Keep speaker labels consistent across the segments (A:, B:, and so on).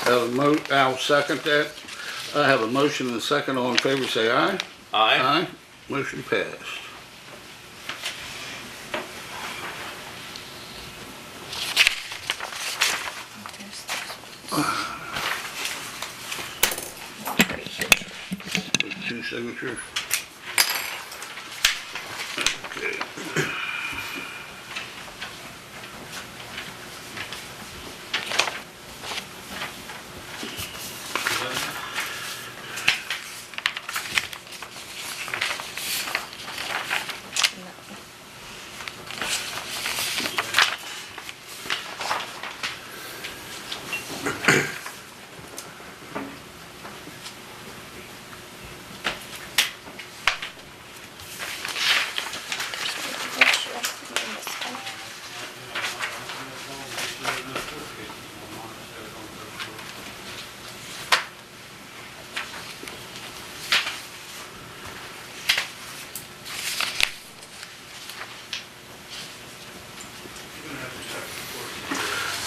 A: Have a mo, I'll second that. I have a motion and a second. All in favor, say aye. Aye.
B: Aye.
A: Motion passed.
C: There's this. Right here.
A: With Two signatures. Okay.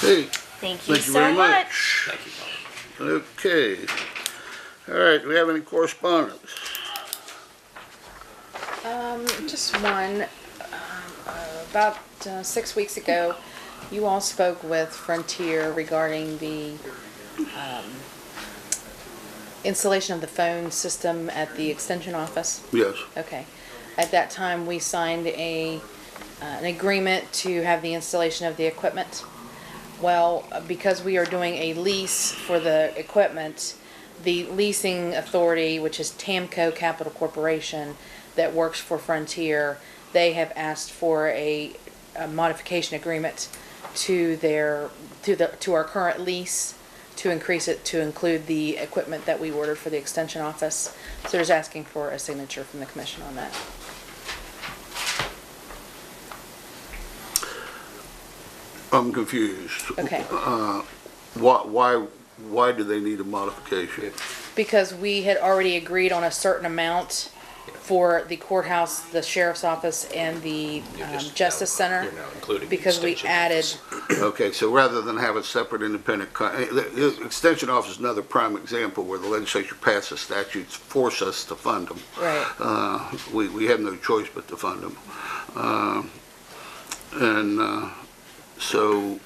A: Hey,
C: Thank you
A: thank you
C: so
A: very
C: much.
A: much.
B: Thank you, Bob.
A: Okay. All right, do we have any correspondence?
D: Um, just one. Um, uh, about uh, six weeks ago, you all spoke with Frontier regarding the um, installation of the phone system at the extension office.
A: Yes.
D: Okay. At that time, we signed a, uh, an agreement to have the installation of the equipment. Well, because we are doing a lease for the equipment, the leasing authority, which is Tamco Capital Corporation, that works for Frontier, they have asked for a a modification agreement to their, to the, to our current lease to increase it to include the equipment that we ordered for the extension office. So there's asking for a signature from the commission on that.
A: I'm confused.
D: Okay.
A: Uh, Why, why, why do they need a modification?
D: Because we had already agreed on a certain amount for the courthouse, the sheriff's office, and the
B: You're
D: um,
B: just now-
D: justice center.
B: You're now including the
D: Because we
B: extension
D: added,
B: office.
A: Okay, so rather than have a separate independent, co- eh, the the Extension Office is another prime example where the legislature passes statutes, force us to fund them.
D: right.
A: Uh, We, we have no choice but to fund them. Um, And uh, so,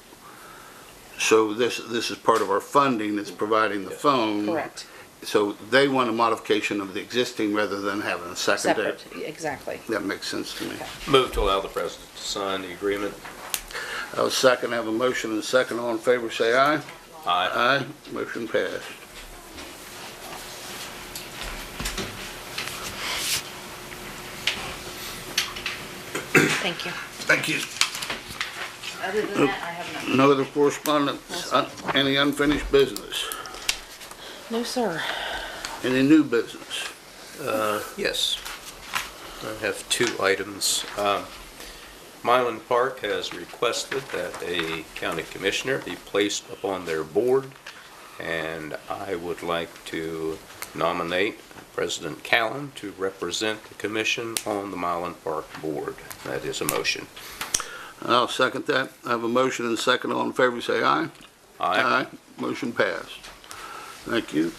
A: so this, this is part of our funding that's providing the phone.
D: Correct.
A: So they want a modification of the existing rather than having a secondary.
D: Separate, exactly.
A: That makes sense to me.
B: Move to allow the president to sign the agreement.
A: I'll second, I have a motion and a second. All in favor, say aye.
B: Aye.
A: Aye, motion passed.
D: Thank you.
A: Thank you.
D: Other than that, I have none.
A: No other correspondence, Un- any unfinished business,
D: No, sir.
A: any new business?
B: Yes. I have two items. Um, Mylan Park has requested that a county commissioner be placed upon their board, and I would like to nominate President Callen to represent the commission on the Mylan Park Board. That is a motion.
A: I'll second that. I have a motion and a second. All in favor, say aye.
B: Uh,
A: Motion passed. Thank you.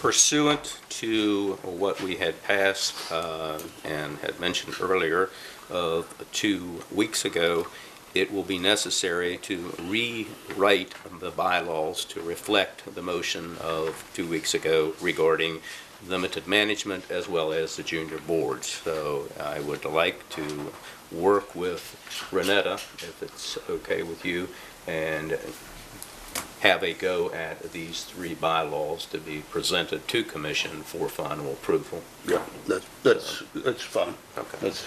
B: pursuant to what we had passed uh, and had mentioned earlier of two weeks ago, it will be necessary to rewrite the bylaws to reflect the motion of two weeks ago regarding limited management as well as the junior boards. So I would like to work with Renetta, if it's okay with you, and have a go at these three bylaws to be presented to commission for final approval.
A: Yeah. That's, that's, that's fine.
B: Okay.
A: That's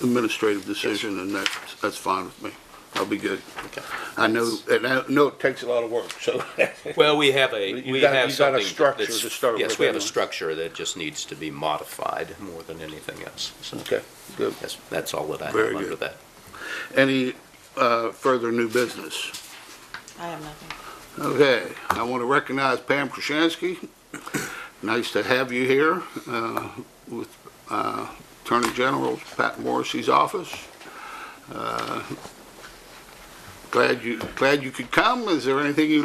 A: administrative decision, and that's, that's fine with me. I'll be good.
B: Okay.
A: I know, and I know it takes a lot of work, so.
B: Well, we have a,
A: You
B: we
A: got-
B: have
A: you got a
B: something
A: structure
B: that's-
A: to start
B: Yes,
A: with
B: we have a
A: anyway.
B: structure that just needs to be modified more than anything else. So,
A: Okay, good.
B: yes, that's all that I have
A: Very
B: under
A: good.
B: that.
A: Any uh, further new business?
D: I have nothing.
A: Okay, I want to recognize Pam Krasinski. Nice to have you here uh, with uh, Attorney General Pat Morrissey's office. Uh, Glad you, glad you could come. Is there anything you'd like